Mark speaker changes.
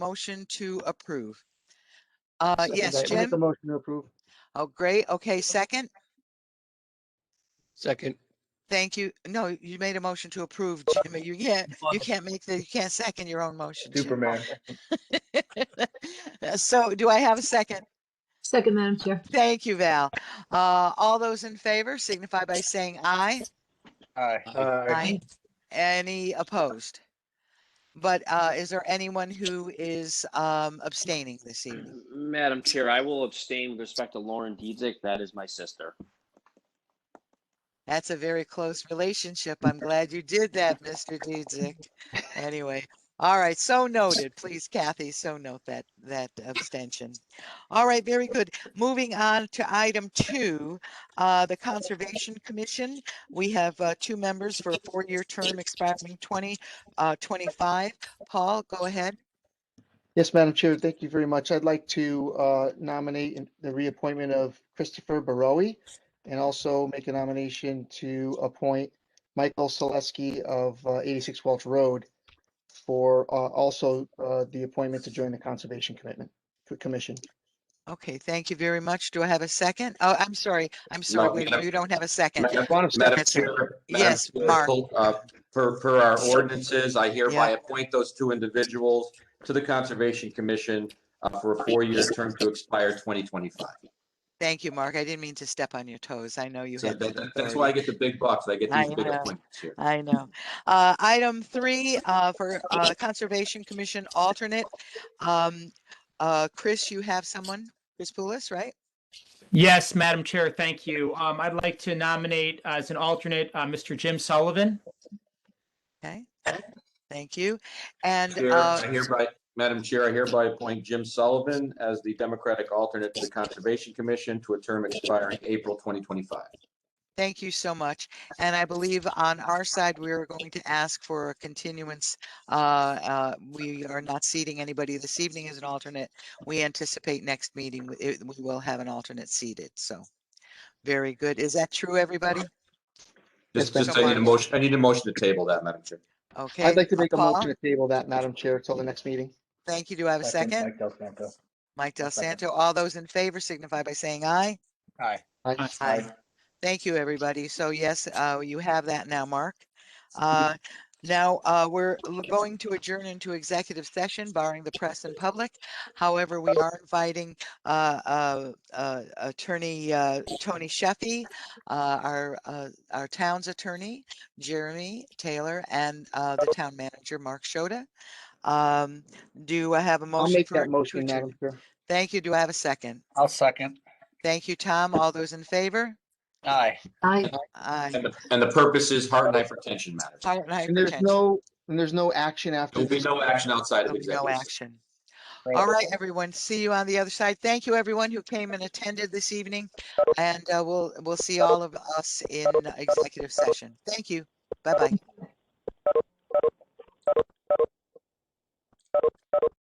Speaker 1: motion to approve? Uh,
Speaker 2: Second
Speaker 1: yes,
Speaker 2: that. I Make a
Speaker 1: Jim?
Speaker 2: motion to approve.
Speaker 1: Oh, great. Okay, second.
Speaker 3: Second,
Speaker 1: Thank you. No, you made a motion to approve, Jim. You can't, you can't make the, you can't second your own motion. Jim. Uh,
Speaker 4: Superman.
Speaker 1: So do I have a second?
Speaker 5: Second, Madam Chair.
Speaker 1: Thank you, Val. Uh, all those in favor signify by saying aye.
Speaker 4: Aye.
Speaker 2: Uh,
Speaker 1: Aye. Any opposed? But, uh, is there anyone who is, um, abstaining this evening?
Speaker 6: Madam Chair, I will abstain with respect to Lauren Dietzick. That is my sister.
Speaker 1: That's a very close relationship. I'm glad you did that, Mr. Dietzick. Anyway, all right, so noted, please Kathy, so note that, that abstention. All right, very good. Moving on to item two, uh, the Conservation Commission. We have, uh, two members for a four-year term expiring twenty, uh, twenty-five. Paul, go ahead.
Speaker 2: Yes, Madam Chair, thank you very much. I'd like to uh, nominate in- the reappointment of Christopher Barowie and also make a nomination to appoint Michael Selesky of uh, 86 Welch Road for uh, also uh, the appointment to join the Conservation Commitment Commission.
Speaker 1: Okay, thank you very much. Do I have a second? Oh, I'm sorry, I'm sorry,
Speaker 7: No,
Speaker 1: wait,
Speaker 7: Madam-
Speaker 1: you don't have a second.
Speaker 7: Madam Chair. Madam
Speaker 1: Yes,
Speaker 7: Chair,
Speaker 1: Mark.
Speaker 7: uh, Per, per our ordinances, I hereby
Speaker 1: Yeah.
Speaker 7: appoint those two individuals to the Conservation Commission uh, for a four-year term to expire 2025.
Speaker 1: Thank you, Mark. I didn't mean to step on your toes. I know you
Speaker 7: So
Speaker 1: have
Speaker 7: that-
Speaker 1: that
Speaker 7: that- That's why I
Speaker 1: authority.
Speaker 7: get the big bucks. I get
Speaker 1: I
Speaker 7: these big
Speaker 1: know.
Speaker 7: appointments here.
Speaker 1: I know. Uh, item three, uh, for, uh, Conservation Commission alternate. Um, uh, Chris, you have someone, Chris Poulos, right?
Speaker 8: Yes, Madam Chair, thank you. Um, I'd like to nominate as an alternate, uh, Mr. Jim Sullivan.
Speaker 1: Okay. Thank you. And,
Speaker 7: Chair,
Speaker 1: uh,
Speaker 7: I hereby, Madam Chair, I hereby appoint Jim Sullivan as the Democratic alternate to the Conservation Commission to a term expiring April 2025.
Speaker 1: Thank you so much. And I believe on our side, we are going to ask for a continuance. Uh, uh, We are not seating anybody this evening as an alternate. We anticipate next meeting, w- it- we will have an alternate seated, so. Very good. Is that true, everybody?
Speaker 7: Just,
Speaker 2: Yes,
Speaker 7: just
Speaker 1: Madam
Speaker 7: I need a
Speaker 1: Chair.
Speaker 7: motion, I need a motion to table that, Madam Chair.
Speaker 1: Okay.
Speaker 2: I'd like to make a
Speaker 1: Paul,
Speaker 2: motion to table that, Madam Chair, till the next meeting.
Speaker 1: Thank you. Do I have a second?
Speaker 4: Mike Del Santo.
Speaker 1: Mike Del
Speaker 4: second.
Speaker 1: Santo, all those in favor signify by saying aye.
Speaker 4: Aye.
Speaker 2: I-
Speaker 8: Aye.
Speaker 4: Aye.
Speaker 1: Thank you, everybody. So yes, uh, you have that now, Mark. Uh, Now, uh, we're l- going to adjourn into executive session barring the press and public. However, we are inviting uh, uh, uh, Attorney uh, Tony Sheffy, uh, our, uh, our town's attorney, Jeremy Taylor, and uh, the town manager, Mark Shoda. Um, Do I have a
Speaker 2: I'll
Speaker 1: motion?
Speaker 2: make
Speaker 1: for-
Speaker 2: that
Speaker 1: to
Speaker 2: motion,
Speaker 1: adjourn?
Speaker 2: Madam Chair.
Speaker 1: Thank you. Do I have a second?
Speaker 4: I'll second.
Speaker 1: Thank you, Tom. All those in favor?
Speaker 4: Aye.
Speaker 5: Aye.
Speaker 1: Aye.
Speaker 7: And the, and the purpose is heart and hypertension matters.
Speaker 1: Heart and
Speaker 2: And there's
Speaker 1: hypertension.
Speaker 2: no, and there's no action after.
Speaker 7: There'll be
Speaker 2: this.
Speaker 7: no action outside of
Speaker 1: There'll be No
Speaker 7: executive. session.
Speaker 1: action. All right, everyone. See you on the other side. Thank you, everyone who came and attended this evening. And uh, we'll, we'll see all of us in executive session. Thank you. Bye-bye.